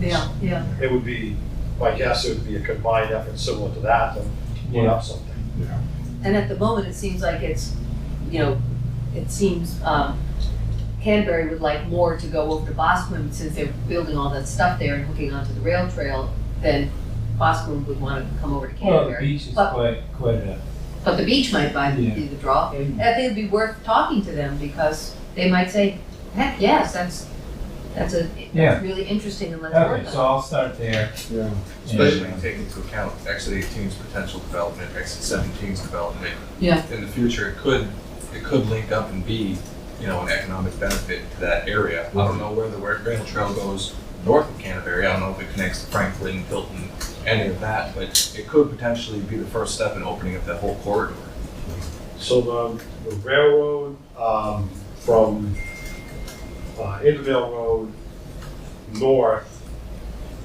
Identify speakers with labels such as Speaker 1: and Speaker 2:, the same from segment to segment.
Speaker 1: Yeah, yeah.
Speaker 2: It would be, my guess, it would be a combined effort similar to that, and put up something.
Speaker 1: And at the moment, it seems like it's, you know, it seems, um, Canterbury would like more to go over to Boscombe since they're building all that stuff there and hooking onto the rail trail than Boscombe would want to come over to
Speaker 3: Well, the
Speaker 1: Canterbury.
Speaker 3: beach is
Speaker 1: But-
Speaker 3: quite, quite a,
Speaker 1: But the beach might buy the,
Speaker 3: Yeah.
Speaker 1: be the draw. And I think it'd be worth talking to them because they might say, heck, yes, that's, that's a,
Speaker 3: Yeah.
Speaker 1: that's really interesting and let's work on
Speaker 3: okay,
Speaker 1: it.
Speaker 3: so I'll start there.
Speaker 4: Yeah.
Speaker 5: Especially when you take into account exit 18's potential development, exit 17's development.
Speaker 1: Yeah.
Speaker 5: In the future, it could, it could link up and be, you know, an economic benefit to that area. I don't know where the where rail trail goes north of Canterbury. I don't know if it connects to Franklin, Hilton, any of that, but it could potentially be the first step in opening up that whole corridor.
Speaker 2: So the, the railroad, um, from, uh, Intervale Road north,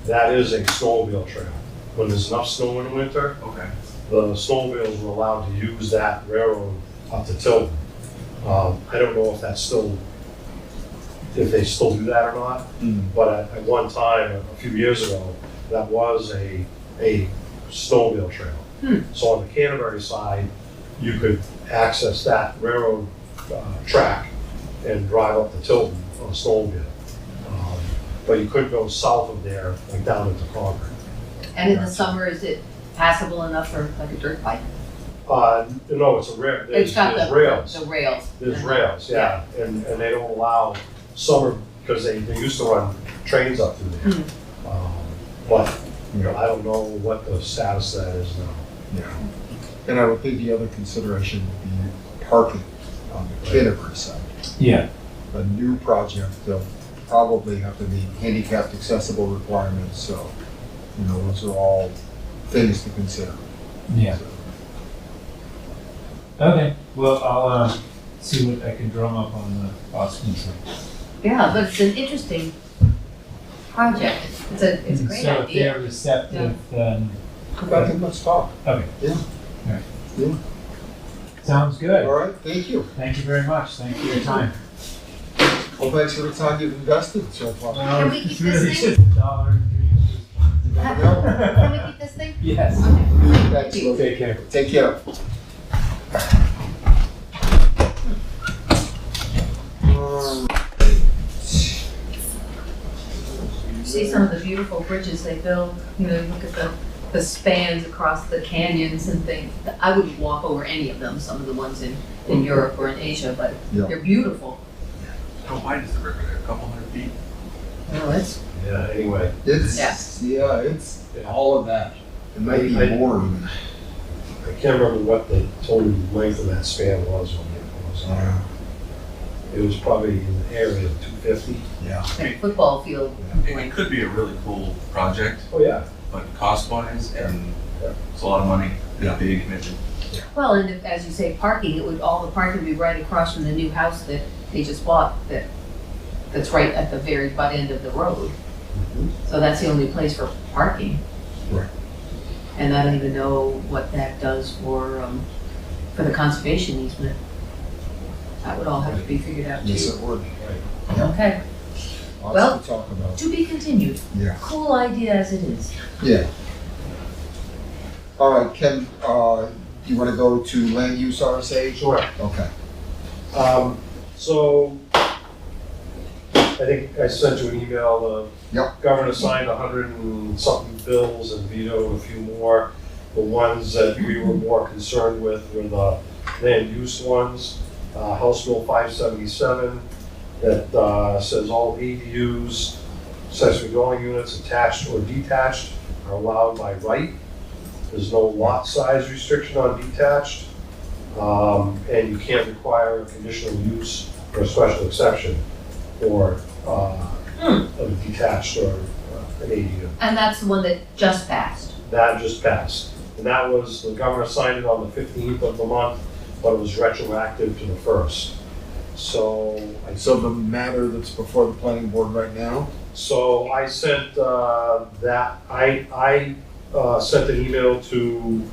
Speaker 2: that is a snowmobile trail. When there's enough snow in the winter,
Speaker 5: Okay.
Speaker 2: the snowmobiles were allowed to use that railroad up to Tilton. Um, I don't know if that's still, if they still do that or not, but at, at one time, a few years ago, that was a, a snowmobile trail.
Speaker 1: Hmm.
Speaker 2: So on the Canterbury side, you could access that railroad, uh, track and drive up to Tilton on a snowmobile. Um, But you couldn't go south of there, like down into Concord.
Speaker 1: And in the summer, is it passable enough for like a dirt bike?
Speaker 2: Uh, no, it's a rail, there's,
Speaker 1: It's got
Speaker 2: there's
Speaker 1: the,
Speaker 2: rails.
Speaker 1: the rails.
Speaker 2: There's rails, yeah, and, and they don't allow summer, because they, they used to run trains up through there. Um, But, you know, I don't know what the status of that is now.
Speaker 4: Yeah. And I would think the other consideration would be parking on the Canterbury side.
Speaker 3: Yeah,
Speaker 4: A new project, they'll probably have to meet handicapped accessible requirements, so, you know, those are all things to consider.
Speaker 3: yeah, okay, well, I'll, uh, see what I can drum up on the Boston side.
Speaker 1: Yeah, but it's an interesting project. It's a, it's a
Speaker 3: And
Speaker 1: great
Speaker 3: So if
Speaker 1: idea.
Speaker 3: they're receptive, then,
Speaker 4: Come back and let's talk.
Speaker 3: okay.
Speaker 4: Yeah.
Speaker 3: Alright.
Speaker 4: Yeah.
Speaker 3: Sounds
Speaker 4: All
Speaker 3: good,
Speaker 4: right, thank you.
Speaker 3: thank you very much, thank you for your time.
Speaker 4: Well, thanks for the time you've invested so far.
Speaker 1: Can we keep
Speaker 3: It's
Speaker 1: this
Speaker 3: really
Speaker 1: thing?
Speaker 3: just a dollar and dreams.
Speaker 4: You never
Speaker 3: Uh,
Speaker 4: know.
Speaker 1: Can we keep this thing?
Speaker 3: Yes.
Speaker 1: Okay.
Speaker 4: Thanks, Lou.
Speaker 3: Take care.
Speaker 4: Take care.
Speaker 1: You see some of the beautiful bridges they build, you know, you look at the, the spans across the canyons and things. I wouldn't walk over any of them, some of the ones in, in Europe or in Asia, but
Speaker 4: Yeah.
Speaker 1: they're beautiful.
Speaker 5: How wide is the river there? A couple hundred feet?
Speaker 4: Oh, it's,
Speaker 2: Yeah, anyway,
Speaker 4: it's, yeah, it's
Speaker 2: Yeah.
Speaker 4: all of that. It might be
Speaker 2: I-
Speaker 4: more even.
Speaker 2: I can't remember what the total length of that span was on it. was.
Speaker 4: Yeah.
Speaker 2: It was probably in the area of two fifty.
Speaker 1: Like a football field.
Speaker 5: It it could be a really cool project,
Speaker 2: Oh, yeah.
Speaker 5: but cost wise and
Speaker 2: Yeah.
Speaker 5: it's a lot of money and a big commitment.
Speaker 1: Well, and if, as you say, parking, it would, all the parking would be right across from the new house that they just bought, that, that's right at the very butt end of the road. So that's the only place for parking.
Speaker 4: Mm-hmm. Right.
Speaker 1: And I don't even know what that does for, um, for the conservation easement. That would all have to be figured out
Speaker 4: Yes,
Speaker 1: too.
Speaker 4: it would. yeah.
Speaker 1: Okay, Well-
Speaker 4: Lots to talk about.
Speaker 1: to be continued.
Speaker 4: Yeah.
Speaker 1: Cool idea as it is.
Speaker 4: Yeah. All right, Ken, uh, you want to go to land use RSA?
Speaker 2: Sure.
Speaker 4: Okay.
Speaker 2: Um, so, I think I sent you an email, the
Speaker 4: Yep.
Speaker 2: governor signed a hundred and something bills and vetoed a few more. The ones that we were more concerned with were the land use ones, uh, House Bill five seventy-seven that, uh, says all ADUs, accessory dwelling units attached or detached are allowed by right. There's no lot size restriction on detached. Um, and you can't require a conditional use or a special exception or, uh, of a detached or uh, an ADU.
Speaker 1: And that's the one that just passed.
Speaker 2: That just passed. And that was, the governor signed it on the fifteenth of the month, but it was retroactive to the first. So I
Speaker 4: So the matter that's before the planning board right now?
Speaker 2: So I sent uh, that, I, I uh, sent an email to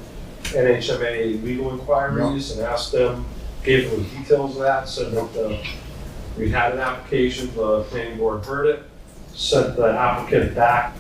Speaker 2: NHMA Legal Inquiries and asked them, gave them the details of that, said that uh, we had an application, the planning board heard it, sent the applicant back